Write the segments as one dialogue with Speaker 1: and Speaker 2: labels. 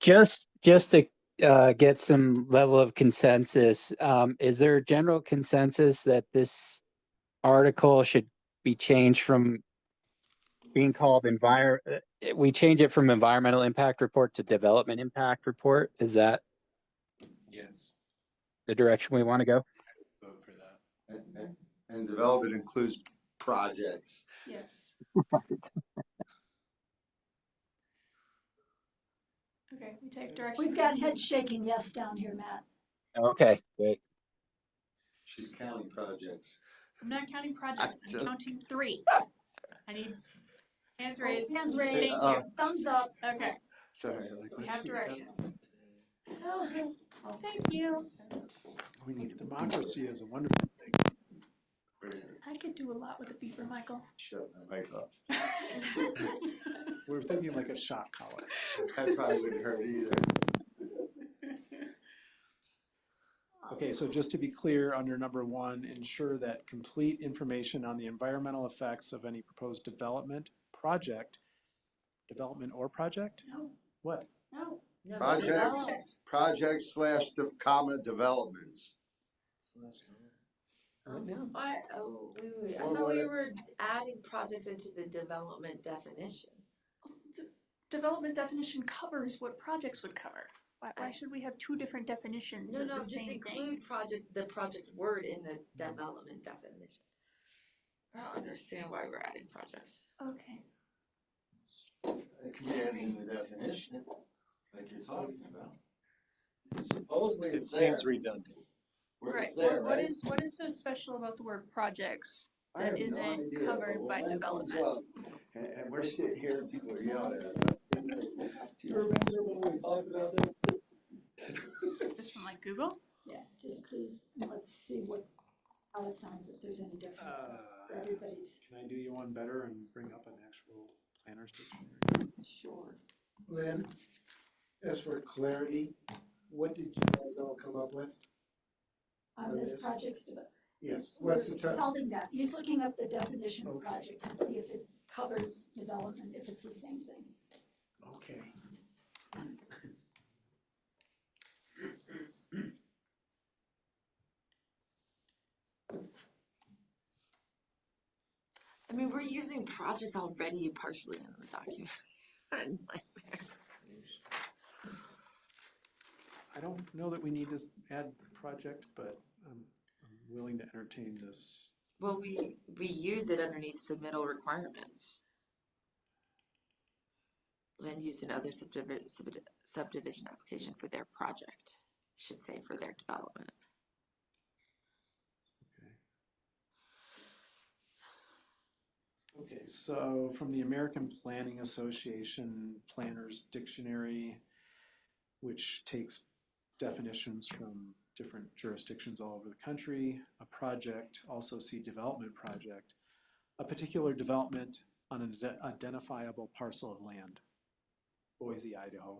Speaker 1: Just, just to uh, get some level of consensus, um, is there a general consensus that this article should be changed from being called envir, uh, we change it from environmental impact report to development impact report? Is that
Speaker 2: Yes,
Speaker 1: the direction we want to go?
Speaker 2: vote for that.
Speaker 3: And, and- and development includes projects.
Speaker 4: Yes. Okay, we take direction.
Speaker 5: We've got head shaking yes down here, Matt.
Speaker 1: Okay, great.
Speaker 3: She's counting projects.
Speaker 4: I'm not counting projects, I'm
Speaker 3: just-
Speaker 4: counting three. I need Oh, hands raised.
Speaker 5: Hands
Speaker 4: Thank
Speaker 5: raised,
Speaker 4: you.
Speaker 3: Uh,
Speaker 5: thumbs up.
Speaker 4: Okay,
Speaker 3: Sorry. I'm like,
Speaker 4: we have direction.
Speaker 5: Oh, good.
Speaker 4: Thank you.
Speaker 3: We need to-
Speaker 6: Democracy is a wonderful thing.
Speaker 4: I could do a lot with a beeper, Michael.
Speaker 3: Shut my mic off.
Speaker 6: We're thinking like a shot collar.
Speaker 3: That probably wouldn't hurt either.
Speaker 6: Okay, so just to be clear, under number one, ensure that complete information on the environmental effects of any proposed development, project, development or project?
Speaker 5: No,
Speaker 6: What?
Speaker 5: no. no,
Speaker 3: Projects.
Speaker 5: no.
Speaker 3: Projects slash de- comma developments.
Speaker 6: Right now?
Speaker 7: Why, oh, we were, I
Speaker 3: Or
Speaker 7: thought
Speaker 3: what
Speaker 7: we
Speaker 3: it-
Speaker 7: were adding projects into the development definition.
Speaker 4: Development definition covers what projects would cover. Why, why should we have two different definitions
Speaker 7: No,
Speaker 4: of
Speaker 7: no,
Speaker 4: the
Speaker 7: just
Speaker 4: same thing?
Speaker 7: include project, the project word in the development definition. I don't understand why we're adding projects.
Speaker 4: Okay,
Speaker 3: It could be adding the definition, like you're talking about. Supposedly
Speaker 6: It
Speaker 3: it's there,
Speaker 6: seems redundant.
Speaker 3: where it's
Speaker 4: What-
Speaker 3: there,
Speaker 4: What
Speaker 3: right?
Speaker 4: is, what is so special about the word projects?
Speaker 3: I have
Speaker 4: that
Speaker 3: no
Speaker 4: isn't
Speaker 3: idea, but
Speaker 4: covered
Speaker 3: when
Speaker 4: by
Speaker 3: it comes
Speaker 4: development?
Speaker 3: up, And, and we're sitting here and people are yelling at us. Do you remember when we talked about this?
Speaker 4: Just from like Google?
Speaker 5: Yeah, just please, and let's see what, how it sounds, if there's any difference
Speaker 8: Uh,
Speaker 5: for
Speaker 6: Uh, Can
Speaker 5: everybody's.
Speaker 6: I do you one better and bring up an actual planner's dictionary?
Speaker 7: Sure.
Speaker 8: Lynn, as for clarity, what did you guys all come up with?
Speaker 5: On this
Speaker 8: Yes.
Speaker 5: project's, deve-
Speaker 8: Yes,
Speaker 5: we're
Speaker 8: what's the term?
Speaker 5: solving that. He's looking up the definition of
Speaker 8: Okay.
Speaker 5: project to see if it covers development, if it's the same thing.
Speaker 8: Okay.
Speaker 7: I mean, we're using project already partially in the document. What a nightmare.
Speaker 6: I don't know that we need to s- add project, but I'm, I'm willing to entertain this.
Speaker 7: Well, we, we use it underneath submittal requirements. Land use and other subdivision, subdivision application for their project, should say for their development.
Speaker 6: Okay, so from the American Planning Association Planners Dictionary, which takes definitions from different jurisdictions all over the country, a project, also see development project, a particular development on an ide- identifiable parcel of land. Boise, Idaho.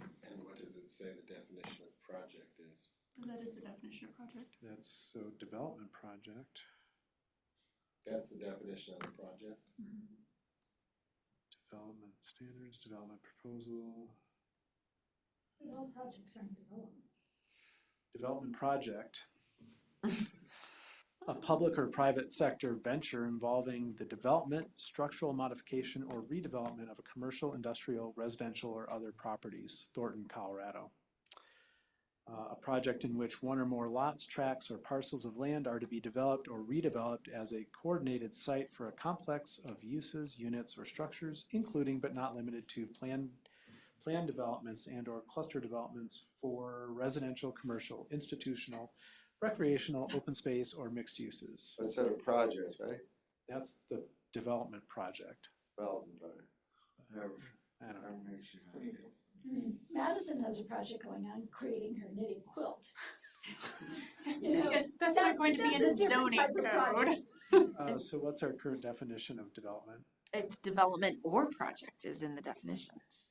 Speaker 2: And what does it say the definition of project is?
Speaker 4: That is the definition of project.
Speaker 6: That's so development project,
Speaker 2: That's the definition of a project.
Speaker 6: development standards, development proposal.
Speaker 5: But all projects aren't development.
Speaker 6: development project. A public or private sector venture involving the development, structural modification, or redevelopment of a commercial, industrial, residential, or other properties, Thornton, Colorado. Uh, a project in which one or more lots, tracts, or parcels of land are to be developed or redeveloped as a coordinated site for a complex of uses, units, or structures, including but not limited to planned planned developments and or cluster developments for residential, commercial, institutional, recreational, open space, or mixed uses.
Speaker 3: I said a project, right?
Speaker 6: That's the development project.
Speaker 3: Development project. Whatever.
Speaker 6: I don't know.
Speaker 5: I mean, Madison has a project going on, creating her knitting quilt. You know,
Speaker 4: Yes, that's not going to be in
Speaker 5: that's a different
Speaker 4: zoning
Speaker 5: type of
Speaker 4: code.
Speaker 5: project.
Speaker 6: Uh, so what's our current definition of development?
Speaker 7: It's development or project is in the definitions.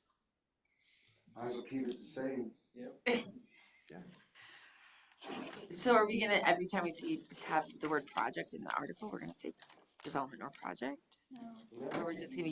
Speaker 3: Might as well keep it the same.
Speaker 7: So are we gonna, every time we see, have the word project in the article, we're gonna say development or project?
Speaker 4: No.
Speaker 7: Or we're just gonna